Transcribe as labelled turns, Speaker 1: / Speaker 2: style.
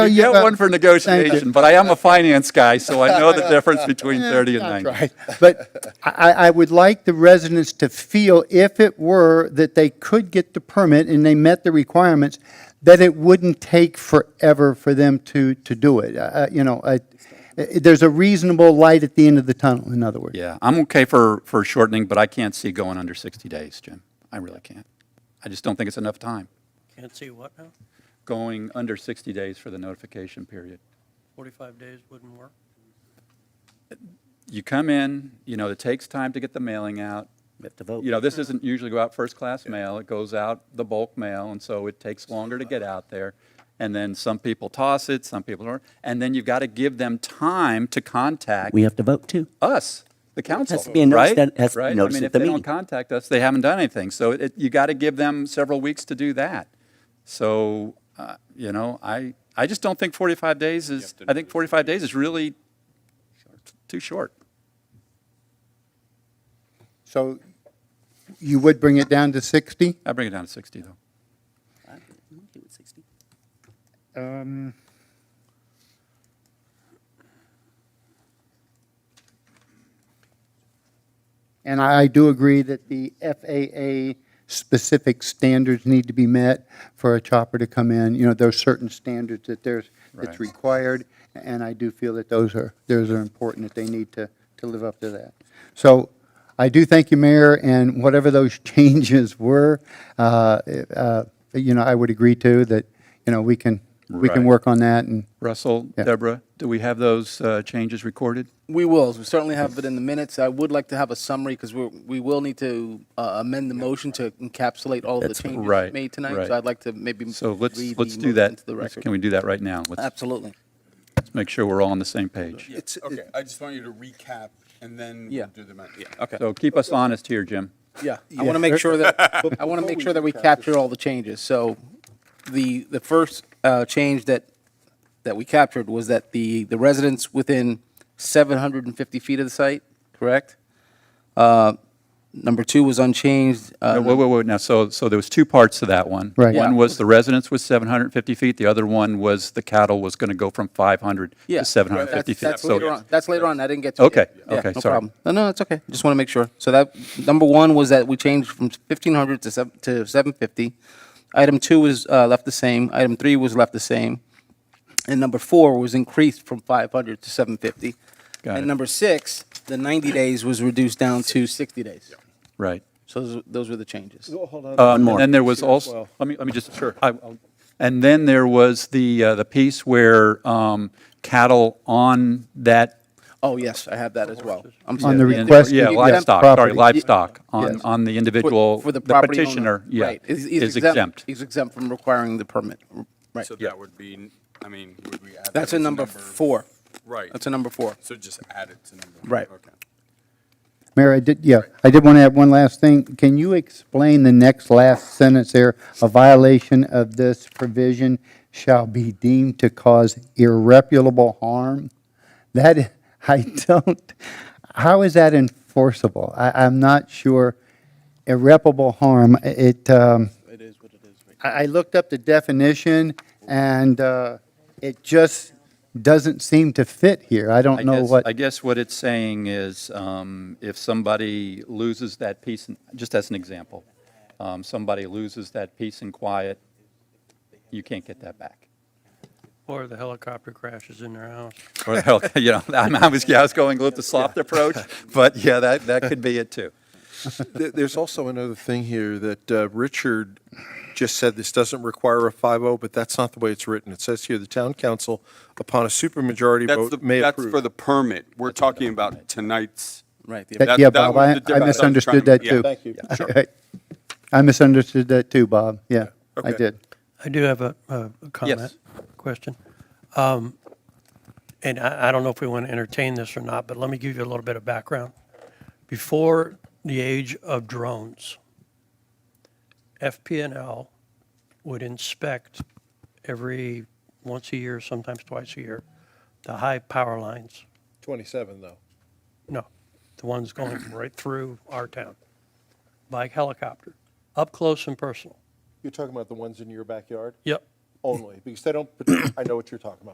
Speaker 1: Oh,
Speaker 2: You get one for negotiation, but I am a finance guy, so I know the difference between 30 and
Speaker 1: Yeah,
Speaker 2: 90.
Speaker 1: that's right. But I, I- I would like the residents to feel, if it were that they could get the permit and they met the requirements, that it wouldn't take forever for them to, to do it. Uh, uh, You know, I- uh, there's a reasonable light at the end of the tunnel, in other words.
Speaker 2: Yeah, I'm okay for, for shortening, but I can't see going under 60 days, Jim. I really can't. I just don't think it's enough time,
Speaker 3: Can't see what now?
Speaker 2: going under 60 days for the notification period.
Speaker 3: 45 days wouldn't work?
Speaker 2: You come in, you know, it takes time to get the mailing out.
Speaker 4: We have to vote.
Speaker 2: You know, this isn't usually go out first-class mail, it goes out the bulk mail, and so it takes longer to get out there. And then some people toss it, some people don't, and then you've got to give them time to contact
Speaker 4: We have to vote too.
Speaker 2: us, the council,
Speaker 4: to be a notice
Speaker 2: right?
Speaker 4: that- has to be
Speaker 2: Right? I
Speaker 4: noticed
Speaker 2: mean,
Speaker 4: at
Speaker 2: if
Speaker 4: the
Speaker 2: they don't
Speaker 4: meeting.
Speaker 2: contact us, they haven't done anything. So it, you got to give them several weeks to do that. So, uh, you know, I, I just don't think 45 days is, I think 45 days is really too short.
Speaker 1: So you would bring it down to 60?
Speaker 2: I bring it down to 60, though.
Speaker 1: And I I do agree that the FAA specific standards need to be met for a chopper to come in. You know, there's certain standards that there's,
Speaker 2: Right.
Speaker 1: that's required, and I do feel that those are, those are important, that they need to, to live up to that. So I do thank you, Mayor, and whatever those changes were, uh, uh, you know, I would agree to that, you know, we can, we can
Speaker 2: Right.
Speaker 1: work on that and.
Speaker 2: Russell,
Speaker 1: Yeah.
Speaker 2: Deborah, do we have those uh, changes recorded?
Speaker 5: We will. We certainly have it in the minutes. I would like to have a summary because we we will need to uh, amend the motion to encapsulate all of the
Speaker 4: That's
Speaker 5: changes
Speaker 2: right,
Speaker 5: made tonight.
Speaker 2: right.
Speaker 5: So I'd like to maybe
Speaker 2: So let's,
Speaker 5: read
Speaker 2: let's
Speaker 5: the
Speaker 2: do
Speaker 5: motion
Speaker 2: that.
Speaker 5: into the
Speaker 2: Let's-
Speaker 5: record.
Speaker 2: Can we do that right now? Let's
Speaker 5: Absolutely.
Speaker 2: let's make sure we're all on the same page.
Speaker 6: It's, okay, I just want you to recap and then
Speaker 5: Yeah.
Speaker 6: we'll do the math. Yeah, okay.
Speaker 2: So keep us honest here, Jim.
Speaker 5: Yeah, I want to make sure that I want to make sure that we capture all the changes. So the the first uh, change that that we captured was that the the residents within 750 feet of the site, correct? Uh, number two was unchanged. Uh,
Speaker 2: Wait, wait, wait, now, so, so there was two parts to that one.
Speaker 1: Right.
Speaker 2: One
Speaker 5: Yeah.
Speaker 2: was the residence was 750 feet, the other one was the cattle was going to go from 500
Speaker 5: Yeah.
Speaker 2: to 750
Speaker 5: That's,
Speaker 2: feet.
Speaker 5: that's
Speaker 2: So-
Speaker 5: later on. That's later on. I didn't get to it
Speaker 2: Okay,
Speaker 5: yet. Yeah,
Speaker 2: okay,
Speaker 5: no
Speaker 2: sorry.
Speaker 5: problem. No, no, it's okay. Just want to make sure. So that number one was that we changed from fifteen hundred to seven to seven fifty. Item two was uh, left the same. Item three was left the same, and number four was increased from five hundred to seven fifty.
Speaker 2: Got
Speaker 5: and
Speaker 2: it.
Speaker 5: number six, the ninety days was reduced down to sixty days.
Speaker 2: Right.
Speaker 5: So those, those were the changes.
Speaker 2: One more. And then there was also, let me, let me just, sure. And then there was the, uh, the piece where um, cattle on that.
Speaker 5: Oh yes, I have that as well. I'm
Speaker 1: On the
Speaker 5: sorry.
Speaker 1: request Question.
Speaker 2: Yeah,
Speaker 1: Exempt
Speaker 2: livestock, sorry,
Speaker 1: property.
Speaker 2: livestock, on,
Speaker 5: Yes.
Speaker 2: on the individual,
Speaker 5: For- for
Speaker 2: the
Speaker 5: property owner.
Speaker 2: petitioner, yeah,
Speaker 5: Right. He's- he's
Speaker 2: is exempt.
Speaker 5: He's exempt from requiring the permit. Right.
Speaker 6: So that would be, I mean, would we add? that
Speaker 5: That's a
Speaker 6: as
Speaker 5: number four.
Speaker 6: Right.
Speaker 5: That's a number four.
Speaker 6: So just add it to number one.
Speaker 5: Right.
Speaker 6: Okay.
Speaker 1: Mayor, I did, yeah, I did want to add one last thing. Can you explain the next last sentence there? A violation of this provision shall be deemed to cause irreparable harm? That, I don't, how is that enforceable? I, I'm not sure. Irreparable harm, it, um,
Speaker 5: It is what it is.
Speaker 1: I, I looked up the definition and, uh, it just doesn't seem to fit here. I
Speaker 2: I
Speaker 1: don't know
Speaker 2: guess-
Speaker 1: what.
Speaker 2: I guess what it's saying is, um, if somebody loses that peace, and- just as an example, um, somebody loses that peace and quiet, you can't get that back.
Speaker 3: Or the helicopter crashes in their house.
Speaker 2: Or, you know, I'm- I was, yeah, I was going with the soft approach, but yeah, that, that could be it too.
Speaker 7: There- There's also another thing here that uh, Richard just said, this doesn't require a 5-0, but that's not the way it's written. It says here, the town council, upon a supermajority
Speaker 6: That's
Speaker 7: vote,
Speaker 6: the,
Speaker 7: may
Speaker 6: that's
Speaker 7: approve.
Speaker 6: for the permit. We're talking about tonight's.
Speaker 5: Right. the-
Speaker 1: That-
Speaker 6: That-
Speaker 1: yeah,
Speaker 6: that
Speaker 1: Bob,
Speaker 6: was
Speaker 1: I,
Speaker 6: the
Speaker 1: I
Speaker 6: difference I was
Speaker 1: misunderstood
Speaker 6: trying
Speaker 1: that
Speaker 6: to-
Speaker 1: too.
Speaker 6: yeah,
Speaker 7: thank you. Yeah,
Speaker 1: I- I misunderstood that too, Bob. Yeah, I
Speaker 7: Okay.
Speaker 1: did.
Speaker 3: I do have a, a a comment, question. Um, and I, I don't know if we want to entertain this or not, but let me give you a little bit of background. Before the age of drones, FPNL would inspect every, once a year, sometimes twice a year, the high power lines.
Speaker 7: 27, though.
Speaker 3: No, the ones going right through our town by helicopter, up close and personal.
Speaker 7: You're talking about the ones in your backyard?
Speaker 3: Yep.
Speaker 7: only, because they don't, I know what you're talking about.